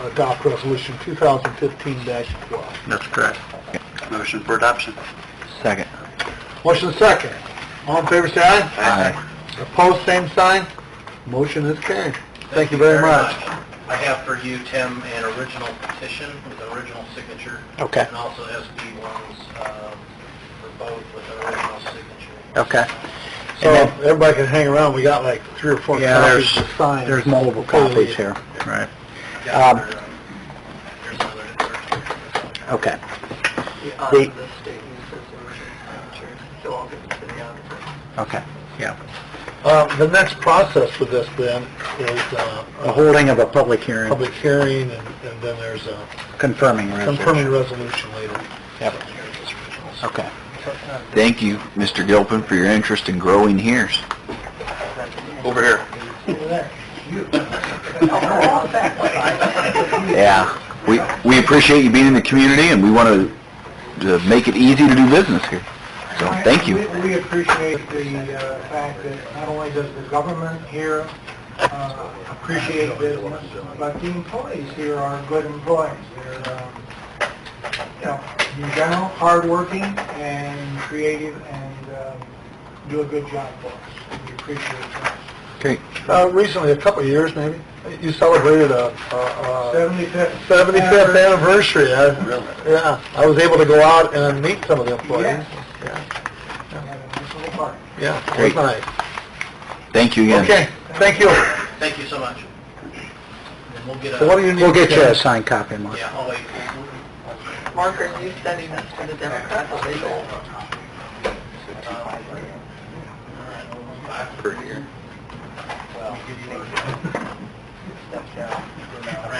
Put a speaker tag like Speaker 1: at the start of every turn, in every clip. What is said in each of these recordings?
Speaker 1: adopt Resolution 2015-12.
Speaker 2: That's correct. Motion for adoption. Second.
Speaker 1: Motion second. All in favor, say aye.
Speaker 2: Aye.
Speaker 1: Opposed, same sign. Motion is carried. Thank you very much.
Speaker 3: I have for you, Tim, an original petition with an original signature.
Speaker 2: Okay.
Speaker 3: And also SB ones, um, for both with an original signature.
Speaker 2: Okay.
Speaker 1: So
Speaker 2: And then-
Speaker 1: everybody can hang around. We got like three or four
Speaker 2: Yeah,
Speaker 1: copies
Speaker 2: there's,
Speaker 1: to sign.
Speaker 2: there's multiple copies here. Right.
Speaker 3: Yeah,
Speaker 2: Um,
Speaker 3: there's another- there's another-
Speaker 2: Okay.
Speaker 3: Yeah,
Speaker 2: The-
Speaker 3: the state uses original signatures, so I'll give it to the auditor.
Speaker 2: Okay. Yeah.
Speaker 1: Um, The next process for this then is uh,
Speaker 2: The
Speaker 1: a
Speaker 2: holding of a public hearing
Speaker 1: public hearing and and then there's a
Speaker 2: confirming resolution.
Speaker 1: confirming resolution later.
Speaker 2: Yep. Okay.
Speaker 4: Thank you, Mr. Gilpin, for your interest in growing here's.
Speaker 2: Over here.
Speaker 4: Yeah, we, we appreciate you being in the community, and we want to make it easy to do business here. So, thank you.
Speaker 5: We- We appreciate the uh, fact that not only does the government here uh, appreciate business, but the employees here are good employees. They're, um, you know, in general, hardworking and creative and um, do a good job for us. We appreciate that.
Speaker 4: Great.
Speaker 1: Uh, Recently, a couple of years maybe, you celebrated a a- a-
Speaker 5: 75th.
Speaker 3: Uh,
Speaker 1: 75th
Speaker 5: anniversary.
Speaker 1: anniversary. I- Yeah, I was able to go out and meet some of the employees.
Speaker 5: Yes. Have a nice little party.
Speaker 1: Yeah, it was
Speaker 4: Great.
Speaker 1: nice.
Speaker 4: Thank you again.
Speaker 1: Okay, thank you.
Speaker 3: Thank you so much. And we'll get a...
Speaker 1: So what do you need?
Speaker 2: We'll get you
Speaker 1: Ken?
Speaker 2: a signed copy, Mark.
Speaker 3: Yeah, I'll wait.
Speaker 6: Mark, are you sending this to the Democrats or they don't?
Speaker 3: Per year.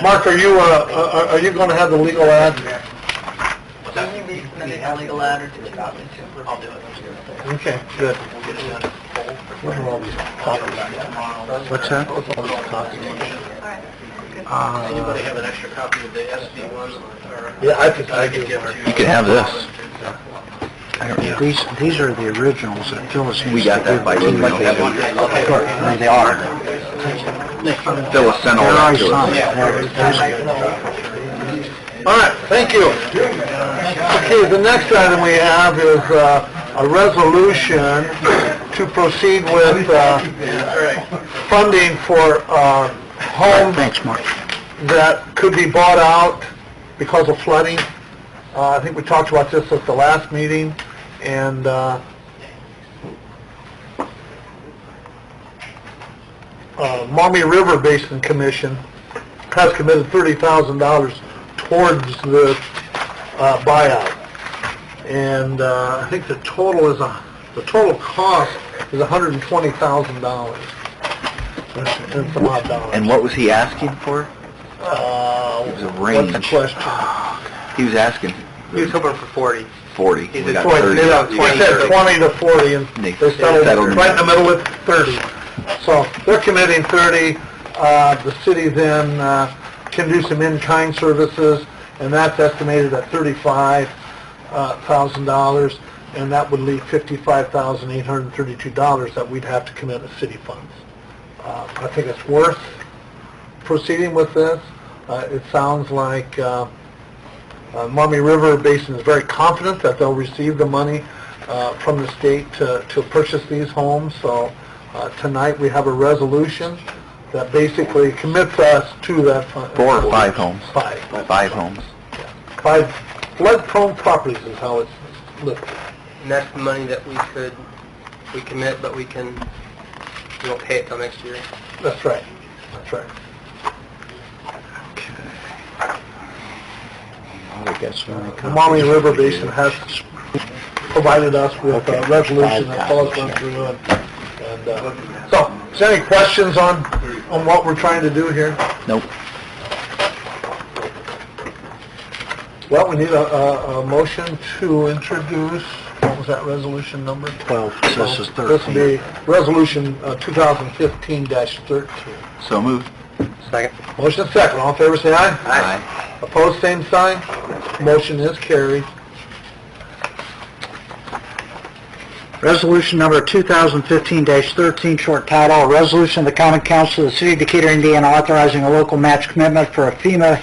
Speaker 1: Mark, are you, uh, are are you going to have the legal ad?
Speaker 6: Will you be submitting a legal ad or do you want me to?
Speaker 3: I'll do it.
Speaker 1: Okay, good.
Speaker 3: We'll get it done.
Speaker 1: What are all these copies?
Speaker 2: What's that? Uh,
Speaker 3: Anybody have an extra copy of the SB ones? or-
Speaker 1: Yeah, I think I do,
Speaker 3: could give
Speaker 1: Mark.
Speaker 3: to-
Speaker 4: You can have this.
Speaker 2: I don't know. These, these are the originals that Phyllis
Speaker 4: We
Speaker 2: used to
Speaker 4: got that
Speaker 2: give
Speaker 4: by
Speaker 2: to me.
Speaker 4: email.
Speaker 2: Of course, I mean, they are.
Speaker 4: Phyllis sent all
Speaker 2: They're
Speaker 4: that
Speaker 2: already
Speaker 4: to us.
Speaker 2: signed. They're- they're-
Speaker 1: All right, thank you. Okay, the next item we have is uh, a resolution to proceed with uh, funding for uh, homes
Speaker 2: Thanks, Mark.
Speaker 1: that could be bought out because of flooding. Uh, I think we talked about this at the last meeting, and uh, uh, Maumee River Basin Commission has committed $30,000 towards the uh, buyout. And uh, I think the total is, a the total cost is $120,000. And some odd dollars.
Speaker 4: And what was he asking for?
Speaker 1: Uh,
Speaker 4: It was a
Speaker 1: what's the
Speaker 4: range. Ah.
Speaker 1: question?
Speaker 4: He was asking
Speaker 3: He was hoping for 40.
Speaker 4: 40. We got
Speaker 1: Twenty-
Speaker 4: 30.
Speaker 1: they don't-
Speaker 4: We
Speaker 1: He
Speaker 4: got
Speaker 1: said
Speaker 4: 30.
Speaker 1: twenty to forty, and
Speaker 4: They-
Speaker 1: they settled
Speaker 4: settled.
Speaker 1: right in the middle with thirty. So they're committing thirty, uh, the city then, uh, can do some in-kind services, and that's estimated at thirty-five uh, thousand dollars, and that would leave fifty-five thousand eight hundred and thirty-two dollars that we'd have to commit as city funds. Uh, I think it's worth proceeding with this. Uh, it sounds like, uh, uh, Maumee River Basin is very confident that they'll receive the money uh, from the state to to purchase these homes, so uh, tonight we have a resolution that basically commits us to that fund.
Speaker 4: Four or five homes?
Speaker 1: Five.
Speaker 4: Five homes.
Speaker 1: Five flood-prone properties is how it's listed.
Speaker 3: And that's the money that we could, we commit, but we can, we won't pay it till next year.
Speaker 1: That's right, that's right.
Speaker 2: I guess when they
Speaker 1: The
Speaker 2: come.
Speaker 1: Maumee River Basin has provided us with a resolution that Paul's went through, and, and, uh, so, is there any questions on, on what we're trying to do here?
Speaker 4: Nope.
Speaker 1: Well, we need a, a, a motion to introduce, what was that resolution number?
Speaker 2: Twelve, so this is
Speaker 1: This will
Speaker 2: thirteen.
Speaker 1: be resolution uh, two thousand fifteen thirteen.
Speaker 4: So moved.
Speaker 2: Second.
Speaker 1: Motion second, all in favor, say aye.
Speaker 4: Aye.
Speaker 1: Opposed, same sign. Motion is carried.
Speaker 2: Resolution number 2015-13, short title, a resolution of the Common Council of the City of Decatur, Indiana, authorizing a local match commitment for a FEMA